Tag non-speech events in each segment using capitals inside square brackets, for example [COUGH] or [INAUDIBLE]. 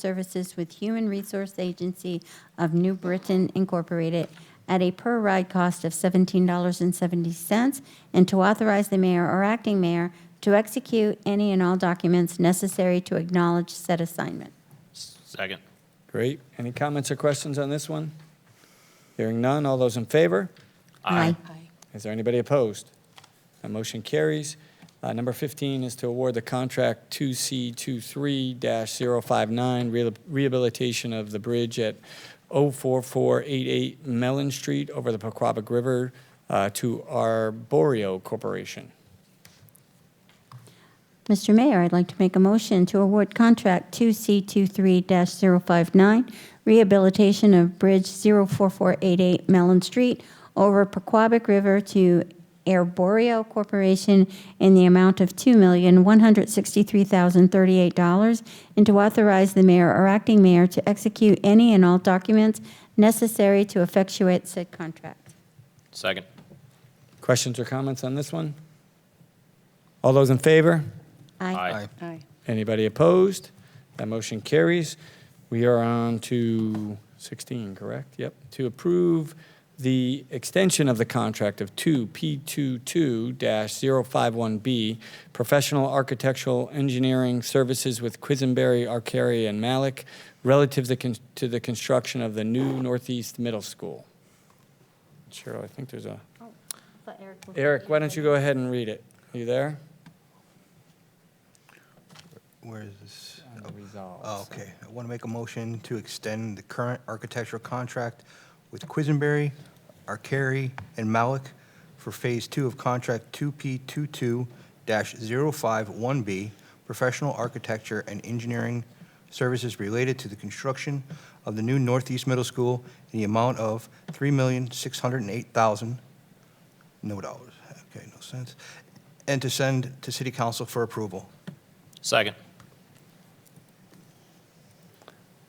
Services with Human Resource Agency of New Britain Incorporated at a per-ride cost of $17.70, and to authorize the mayor or acting mayor to execute any and all documents necessary to acknowledge said assignment. Second. Great. Any comments or questions on this one? Hearing none. All those in favor? Aye. Is there anybody opposed? That motion carries. Uh, Number 15 is to award the contract 2C23-059 rehabil- rehabilitation of the bridge at 04488 Mellon Street over the Paquabic River uh, to Arborio Corporation. Mr. Mayor, I'd like to make a motion to award contract 2C23-059, rehabilitation of Bridge 04488 Mellon Street over Pequabic River to Arborio Corporation in the amount of $2,163,038, and to authorize the mayor or acting mayor to execute any and all documents necessary to effectuate said contract. Second. Questions or comments on this one? All those in favor? Aye. Aye. Anybody opposed? That motion carries. We are on to 16, correct? Yep. To approve the extension of the contract of 2P22-051B, Professional Architectural Engineering Services with Quisenberry, Arcari, and Malik, relative to con- to the construction of the new Northeast Middle School. Cheryl, Oh, I think there's a, Eric, why don't you go ahead and read it? Are you there? Where is this? On the resolve, so- Oh, Okay, I want to make a motion to extend the current architectural contract with Quisenberry, Arcari, and Malik for Phase Two of Contract 2P22-051B, Professional Architecture and Engineering Services Related to the Construction of the New Northeast Middle School in the amount of $3,608,000. No dollars, okay, no cents. And to send to City Council for approval. Second.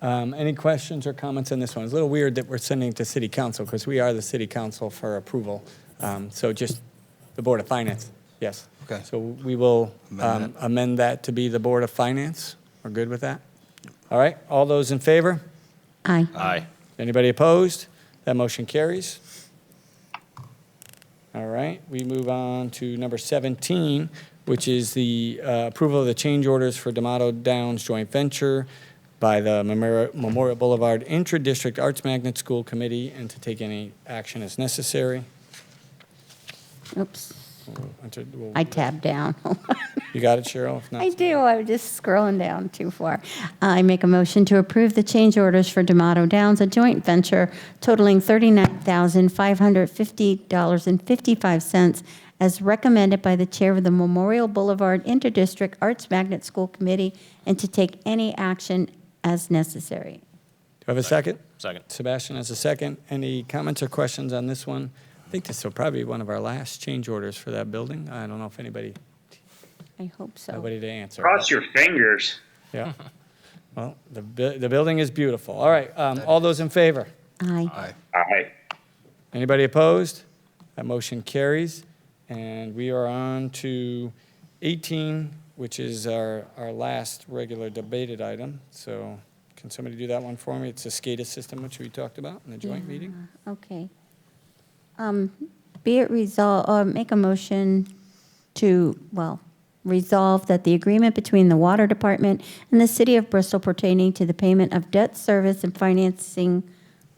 Um, Any questions or comments on this one? It's a little weird that we're sending it to city council because we are the city council for approval. Um, So just the Board of Finance, yes. Okay. So we will Amend um, amend that to be the Board of Finance. We're good with that? All right, all those in favor? Aye. Aye. Anybody opposed? That motion carries. All right, we move on to number 17, which is the uh, approval of the change orders for D'Amato Downs Joint Venture by the Memori- Memorial Boulevard Intra-District Arts Magnet School Committee, and to take any action as necessary. Oops, We'll enter- we'll- I tabbed down. [LAUGHS] You got it, Cheryl? If not, I do, I'm just scrolling down too far. I make a motion to approve the change orders for D'Amato Downs, a joint venture totaling $39,550.55 as recommended by the Chair of the Memorial Boulevard Interdistrict Arts Magnet School Committee, and to take any action as necessary. Do I have a second? Second. Sebastian has a second. Any comments or questions on this one? I think this will probably be one of our last change orders for that building. I don't know if anybody, I hope so. nobody to answer. Cross your fingers. Yeah. [LAUGHS] Well, the, bu- the building is beautiful. All right, um, all those in favor? Aye. Aye. Anybody opposed? That motion carries. And we are on to 18, which is our, our last regular debated item. So can somebody do that one for me? It's the SCADA system, which we talked about in the joint meeting. Okay. Um, Be it resolved, uh, make a motion to, well, resolve that the agreement between the Water Department and the City of Bristol pertaining to the payment of debt service and financing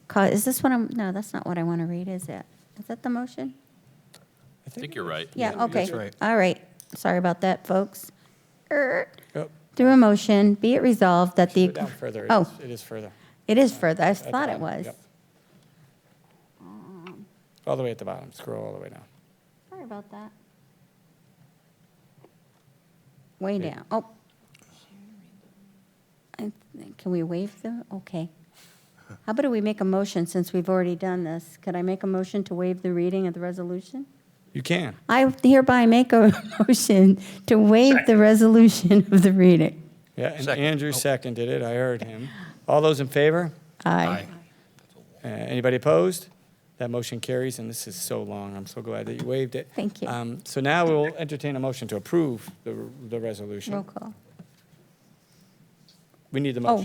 co, is this what I'm, no, that's not what I want to read, is it? Is that the motion? I think you're right. Yeah, okay. that's right. All right. Sorry about that, folks. Er, Oh, Through a motion, be it resolved that the. Go down further. It Oh, is- It is further. it is further. I At the thought it bottom, was. yep. All the way at the bottom, scroll all the way down. Sorry about that. Way Okay. down, oh. I think- Can we waive the, okay. How about we make a motion, since we've already done this? Could I make a motion to waive the reading of the resolution? You can. I hereby make a [LAUGHS] motion to waive the resolution of the reading. Yeah, and Second. Andrew seconded it. I heard him. All those in favor? Aye. Uh, Anybody opposed? That motion carries, and this is so long. I'm so glad that you waived it. Thank you. Um, So now we'll entertain a motion to approve the, the resolution. Roll call. We need the Oh, motion.